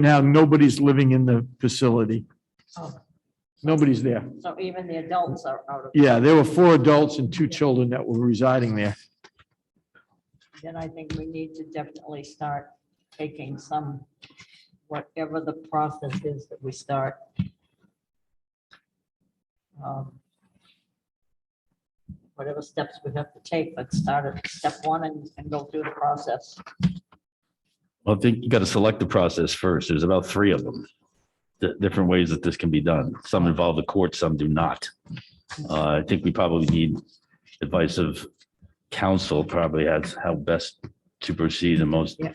now, nobody's living in the facility. Oh. Nobody's there. So even the adults are out of, Yeah, there were four adults and two children that were residing there. then I think we need to definitely start taking some, whatever the process is that we start. um, Whatever steps we have to take, let's start at step one and, and go through the process. Well, I think you got to select the process first. There's about three of them. Di- Different ways that this can be done. Some involve the court, some do not. Uh, I think we probably need advice of counsel probably as how best to proceed the most Yeah.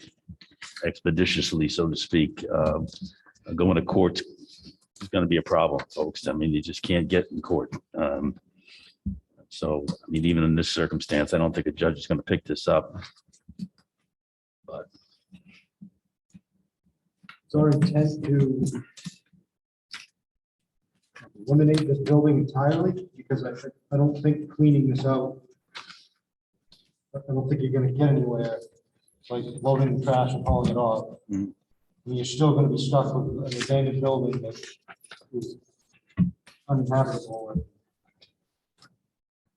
expeditiously, so to speak. Uh, Going to court is going to be a problem, folks. I mean, you just can't get in court. Um, So, I mean, even in this circumstance, I don't think a judge is going to pick this up. It's our intent to eliminate this building entirely, because I, I don't think cleaning this out, I I don't think you're gonna get anywhere, like loading the trash and hauling it off. I Mm. mean, You're still gonna be stuck with an abandoned building that is uninhabitable. and-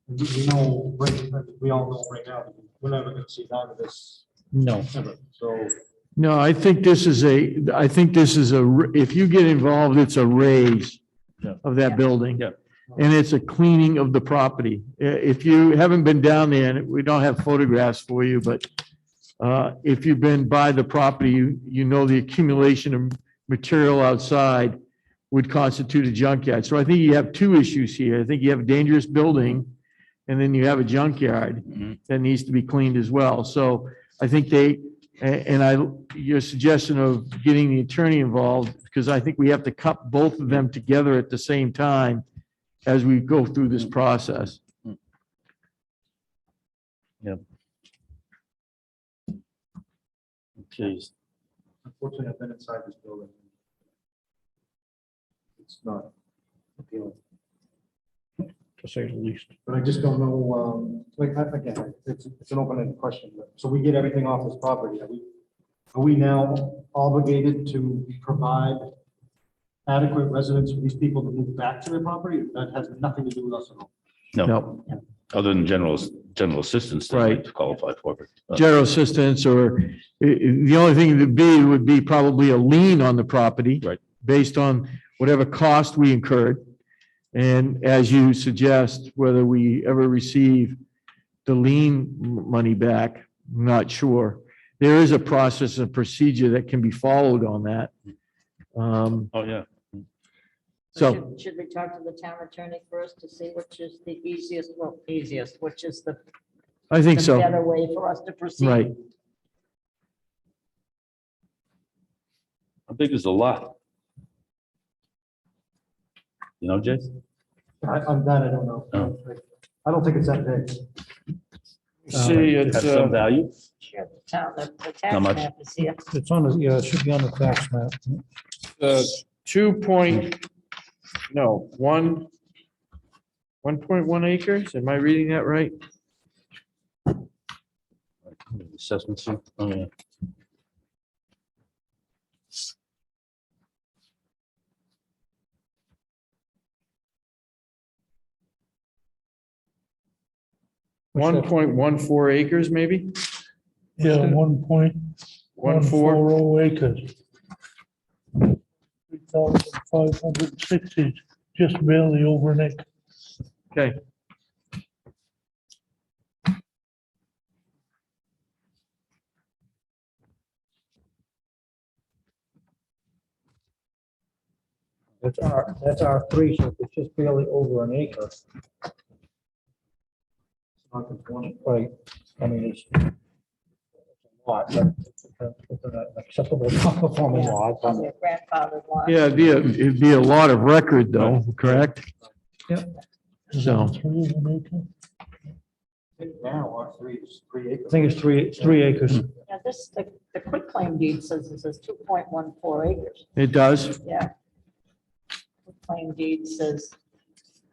and We know, right- we all know right now, we're never gonna see out of this, No. ever, so. No, I think this is a, I think this is a, r- if you get involved, it's a raise Yeah. of that Yeah. building. Yeah. And it's a cleaning of the property. I- If you haven't been down there, and we don't have photographs for you, but uh, if you've been by the property, you, you know the accumulation of material outside would constitute a junkyard. So I think you have two issues here. I think you have a dangerous building and then you have a junkyard that needs to be cleaned as well. So I think they, a- and I, your suggestion of getting the attorney involved, because I think we have to cut both of them together at the same time as we go through this process. Jeez. Unfortunately, I've been inside this building. It's not appealing, To say the least. but I just don't know, um, like, I- again, it's, it's an open-ended question, but, so we get everything off this property, are we, are we now obligated to provide adequate residence for these people to move back to their property? That has nothing to do with us at all. No, Other than general, general assistance. that Right. might Qualify for. but, uh, general assistance or i- i- the only thing to be would be probably a lien on the property. Right. Based on whatever cost we incurred. And as you suggest, whether we ever receive the lien m- money back, not sure. There is a process and procedure that can be followed on that. Um, Oh, yeah. So- should- Should we talk to the town attorney first to see which is the easiest, well, easiest, which is the I think the so, better way for us to proceed? right. I think there's a lot. You know, Jay? I, on that, I don't know. No. I don't think it's that big. See, Have it's, some uh, value. Sure, the town, the the How tax much? map is here. It's on, the- yeah, it should be on the tax map. uh, two point, no, one, one point one acres, am I reading that right? Assessments. Oh, yeah. One point one four acres, maybe? Yeah, one point One one four, four oh acres. Three thousand five hundred and sixty, just barely over an acre. okay. That's our, that's our three, so it's just barely over an acre. It's Not conforming, right, I mean, it's it's a lot, but it's a- it's an acceptable, non-conforming lot. I mean, Your grandfather's lot. Yeah, it'd be, a- it'd be a lot of record though, correct? Is it So- Three is an acre. I think Now, our three is three I acres. think it's three, it's three acres. Yeah, this, the, the quick claim deed says it says two point one four acres, It does, yeah. Claim deed says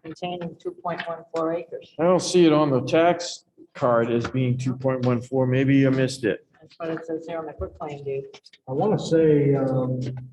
containing two point one four acres. I don't see it on the tax card as being two point one four, maybe you missed it. I That's what it says there on the quick claim deed. I want to say, um,